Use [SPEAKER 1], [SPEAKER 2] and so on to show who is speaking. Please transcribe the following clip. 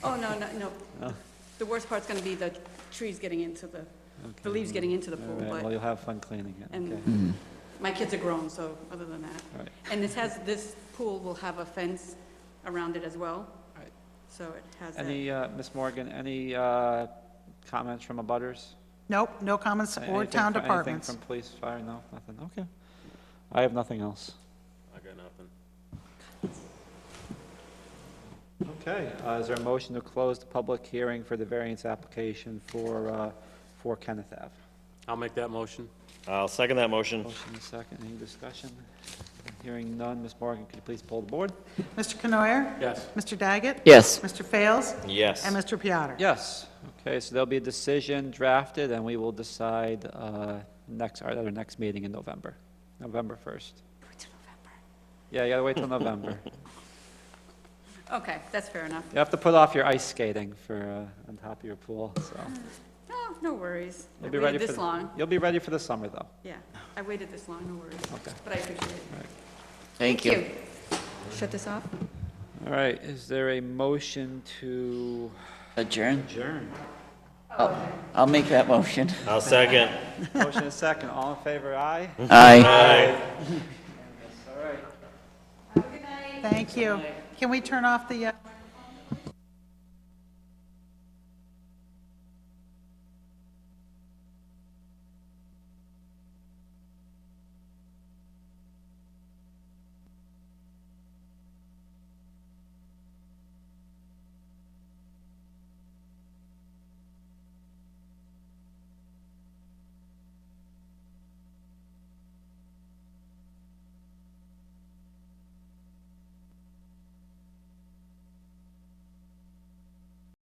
[SPEAKER 1] Oh, no, no, no. The worst part's gonna be the trees getting into the, the leaves getting into the
[SPEAKER 2] All
[SPEAKER 1] pool,
[SPEAKER 2] right, Well,
[SPEAKER 1] but
[SPEAKER 2] you'll have fun cleaning it,
[SPEAKER 1] And-
[SPEAKER 2] okay.
[SPEAKER 3] Hmm.
[SPEAKER 1] my kids are grown, so other than that.
[SPEAKER 2] All right.
[SPEAKER 1] And this has, this pool will have a fence around it as well.
[SPEAKER 2] Right.
[SPEAKER 1] So it has that.
[SPEAKER 2] Any, uh, Ms. Morgan, any uh, comments from abutters?
[SPEAKER 4] Nope, no comments or
[SPEAKER 2] Anything
[SPEAKER 4] town
[SPEAKER 2] fr-
[SPEAKER 4] departments.
[SPEAKER 2] Anything from police, fire, no, nothing, okay. I have nothing else.
[SPEAKER 5] I got nothing.
[SPEAKER 2] Okay, uh, is there a motion to close the public hearing for the variance application for, uh, for Kenneth Ave?
[SPEAKER 5] I'll make that motion.
[SPEAKER 6] I'll second that motion.
[SPEAKER 2] Motion is second, any discussion? Hearing none, Ms. Morgan, could you please pull the board?
[SPEAKER 4] Mr. Canoyer?
[SPEAKER 5] Yes.
[SPEAKER 4] Mr. Daggett?
[SPEAKER 3] Yes.
[SPEAKER 4] Mr. Fails?
[SPEAKER 6] Yes.
[SPEAKER 4] And Mr. Piattar?
[SPEAKER 2] Yes, okay, so there'll be a decision drafted, and we will decide uh, next, our, at our next meeting in November, November 1st.
[SPEAKER 1] Wait till November.
[SPEAKER 2] Yeah, you gotta wait till November.
[SPEAKER 1] Okay, that's fair enough.
[SPEAKER 2] You have to put off your ice skating for, uh, on top of your pool, so.
[SPEAKER 1] Oh, no worries. I
[SPEAKER 2] You'll be ready
[SPEAKER 1] waited
[SPEAKER 2] for
[SPEAKER 1] this
[SPEAKER 2] the-
[SPEAKER 1] long.
[SPEAKER 2] You'll be ready for the summer, though.
[SPEAKER 1] Yeah, I waited this long, no worries.
[SPEAKER 2] Okay.
[SPEAKER 1] But I appreciate it.
[SPEAKER 3] Thank you.
[SPEAKER 1] Shut this off?
[SPEAKER 2] All right, is there a motion to
[SPEAKER 3] Adjourn.
[SPEAKER 2] adjourn?
[SPEAKER 3] I'll make that motion.
[SPEAKER 6] I'll second.
[SPEAKER 2] Motion is second, all in favor, aye?
[SPEAKER 3] Aye.
[SPEAKER 6] Aye.
[SPEAKER 4] Thank you. Can we turn off the, uh,